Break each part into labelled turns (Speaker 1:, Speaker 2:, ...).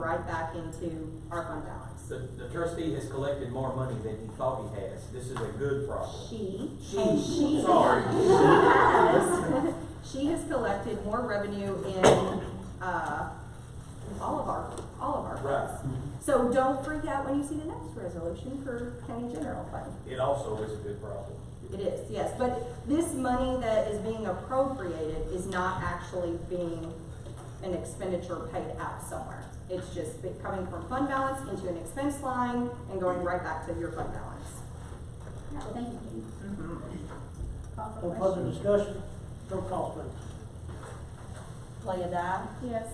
Speaker 1: right back into our fund balance.
Speaker 2: The, the trustee has collected more money than he thought he has. This is a good problem.
Speaker 1: She,
Speaker 2: She,
Speaker 1: and she.
Speaker 2: sorry.
Speaker 1: She has, she has collected more revenue in, uh, all of our, all of our
Speaker 2: Right.
Speaker 1: funds. So don't freak out when you see the next resolution for county general fund.
Speaker 2: It also is a good problem.
Speaker 1: It is, yes, but this money that is being appropriated is not actually being an expenditure paid out somewhere. It's just be- coming from fund balance into an expense line and going right back to your fund balance.
Speaker 3: Thank you. Call for
Speaker 4: No further
Speaker 3: question.
Speaker 4: discussion, roll call please.
Speaker 3: Leah Dyke,
Speaker 1: Yes.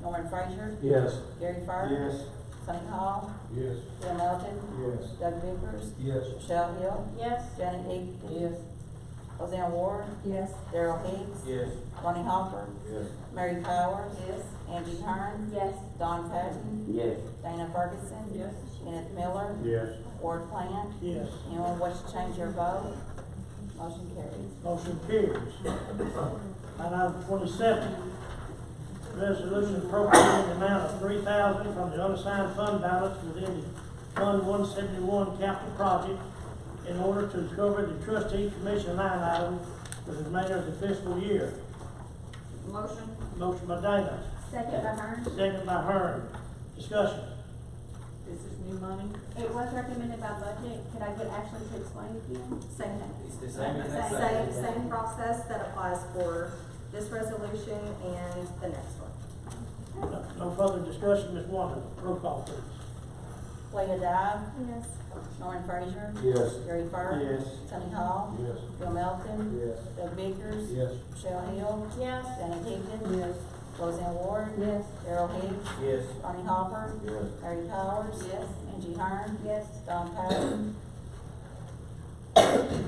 Speaker 3: Norman Frazier,
Speaker 2: Yes.
Speaker 3: Gary Fur. Sonny Hall,
Speaker 2: Yes.
Speaker 3: Bill Melton,
Speaker 2: Yes.
Speaker 3: Doug Bickers,
Speaker 2: Yes.
Speaker 3: Michelle Hill,
Speaker 1: Yes.
Speaker 3: Janet Higgins. Yes. Roseanne Ward,
Speaker 1: Yes.
Speaker 3: Daryl Hicks.
Speaker 2: Yes.
Speaker 3: Ronnie Hopper,
Speaker 2: Yes.
Speaker 3: Mary Powers.
Speaker 1: Yes.
Speaker 3: Angie Hearn.
Speaker 1: Yes.
Speaker 3: Don Patton,
Speaker 2: Yes.
Speaker 3: Dana Ferguson.
Speaker 1: Yes.
Speaker 3: Kenneth Miller,
Speaker 2: Yes.
Speaker 3: Ward Plan.
Speaker 4: Yes,
Speaker 3: Anyone wish to change your vote? Motion carries.
Speaker 4: motion carries. Line item twenty-seven, resolution appropriating the amount of three thousand from the unassigned fund balance within the Fund one seventy-one capital project in order to cover the trustee commission line item for the remainder of the fiscal year.
Speaker 1: Motion?
Speaker 4: Motion by Davis,
Speaker 5: Second by Hearn.
Speaker 4: second by Hearn. Discussion.
Speaker 1: This is new money?
Speaker 5: It was recommended by budget. Could I get Ashley to explain again?
Speaker 1: Same thing.
Speaker 2: It's the same as that.
Speaker 1: Same, same process that applies for this resolution and the next one.
Speaker 4: No no further discussion, Ms. Wanda, roll call please.
Speaker 3: Leah Dyke,
Speaker 5: Yes.
Speaker 3: Norman Frazier,
Speaker 2: Yes.
Speaker 3: Gary Fur.
Speaker 2: Yes.
Speaker 3: Sonny Hall,
Speaker 2: Yes.
Speaker 3: Bill Melton,
Speaker 2: Yes.
Speaker 3: Doug Bickers,
Speaker 2: Yes.
Speaker 3: Michelle Hill,
Speaker 5: Yes.
Speaker 3: Janet Higgins. Yes. Roseanne Ward.
Speaker 5: Yes.
Speaker 3: Daryl Hicks,
Speaker 2: Yes.
Speaker 3: Ronnie Hopper,
Speaker 2: Yes.
Speaker 3: Mary Powers. Yes. Angie Hearn.
Speaker 5: Yes.
Speaker 3: Don Patton.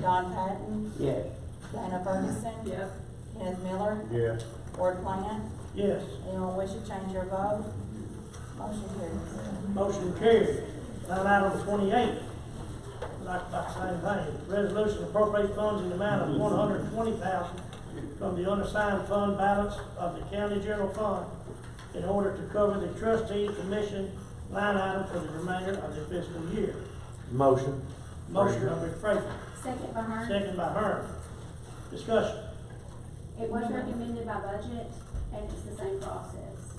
Speaker 3: Don Patton,
Speaker 2: Yes.
Speaker 3: Dana Ferguson. Yes. Kenneth Miller,
Speaker 2: Yes.
Speaker 3: Ward Plan.
Speaker 4: Yes,
Speaker 3: Anyone wish to change your vote? Motion carries.
Speaker 4: motion carried. Line item twenty-eight, like about the same thing, resolution appropriate funds in the amount of one hundred twenty thousand from the unassigned fund balance of the county general fund in order to cover the trustee commission line item for the remainder of the fiscal year.
Speaker 2: Motion.
Speaker 4: Motion by Frazier,
Speaker 5: Second by Hearn.
Speaker 4: second by Hearn. Discussion.
Speaker 5: It was recommended by budget and it's the same process.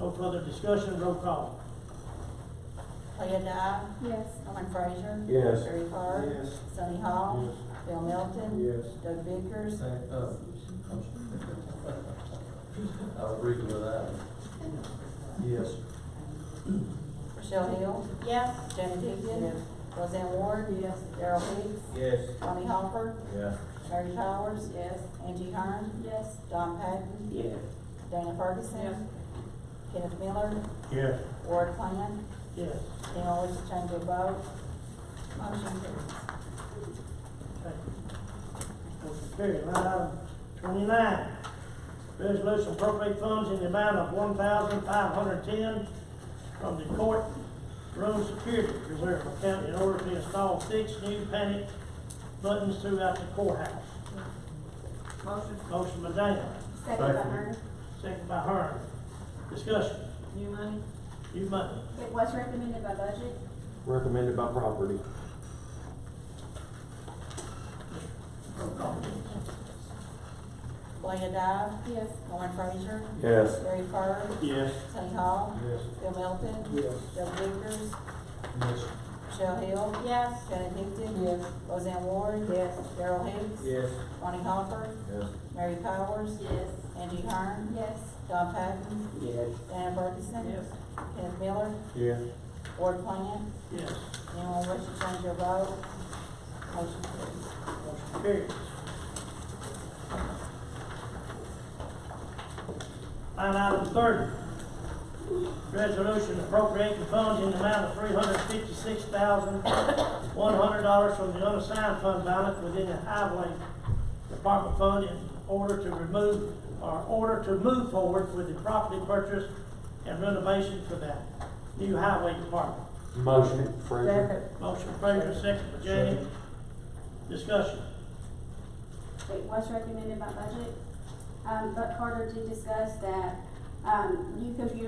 Speaker 4: No further discussion, roll call.
Speaker 3: Leah Dyke,
Speaker 5: Yes.
Speaker 3: Norman Frazier.
Speaker 2: Yes.
Speaker 3: Gary Fur.
Speaker 2: Yes.
Speaker 3: Sonny Hall. Bill Melton.
Speaker 2: Yes.
Speaker 3: Doug Bickers.
Speaker 6: I'll agree with that. Yes.
Speaker 3: Michelle Hill.
Speaker 5: Yes.
Speaker 3: Janet Higgins. Roseanne Ward. Yes. Daryl Hicks.
Speaker 2: Yes.
Speaker 3: Ronnie Hopper.
Speaker 6: Yeah.
Speaker 3: Mary Powers. Yes. Angie Hearn.
Speaker 5: Yes.
Speaker 3: Don Patton.
Speaker 2: Yes.
Speaker 3: Dana Ferguson. Kenneth Miller.
Speaker 4: Yes.
Speaker 3: Ward Plan.
Speaker 4: Yes.
Speaker 3: Anyone wish to change their vote? Motion carries.
Speaker 4: Thank you. Motion carried. Line item twenty-nine, resolution appropriate funds in the amount of one thousand five hundred ten from the court room security reserve account in order to install six new panic buttons throughout the courthouse.
Speaker 1: Motion?
Speaker 4: Motion by Dana,
Speaker 5: Second by Hearn.
Speaker 4: second by Hearn. Discussion,
Speaker 1: New money?
Speaker 4: you money.
Speaker 5: It was recommended by budget.
Speaker 2: Recommended by property.
Speaker 3: Leah Dyke.
Speaker 5: Yes.
Speaker 3: Norman Frazier.
Speaker 2: Yes.
Speaker 3: Gary Fur.
Speaker 4: Yes.
Speaker 3: Sonny Hall.
Speaker 6: Yes.
Speaker 3: Bill Melton.
Speaker 6: Yes.
Speaker 3: Doug Bickers.
Speaker 6: Yes.
Speaker 3: Michelle Hill.
Speaker 5: Yes.
Speaker 3: Janet Higgins. Yes. Roseanne Ward. Yes. Daryl Hicks.
Speaker 2: Yes.
Speaker 3: Ronnie Hopper.
Speaker 6: Yes.
Speaker 3: Mary Powers.
Speaker 5: Yes.
Speaker 3: Angie Hearn.
Speaker 5: Yes.
Speaker 3: Don Patton.
Speaker 2: Yes.
Speaker 3: Dana Ferguson.
Speaker 4: Yes.
Speaker 3: Kenneth Miller.
Speaker 2: Yes.
Speaker 3: Ward Plan.
Speaker 4: Yes.
Speaker 3: Anyone wish to change their vote? Motion carries.
Speaker 4: Motion carries. Line item thirty. Resolution appropriating funds in the amount of three hundred fifty-six thousand, one hundred dollars from the unassigned fund balance within the highway department fund in order to remove, or order to move forward with the property purchase and renovation for that new highway department.
Speaker 2: Motion. Frazier.
Speaker 4: Motion Frazier, second by James. Discussion.
Speaker 5: It was recommended by budget. Um, but Carter did discuss that, um, new computer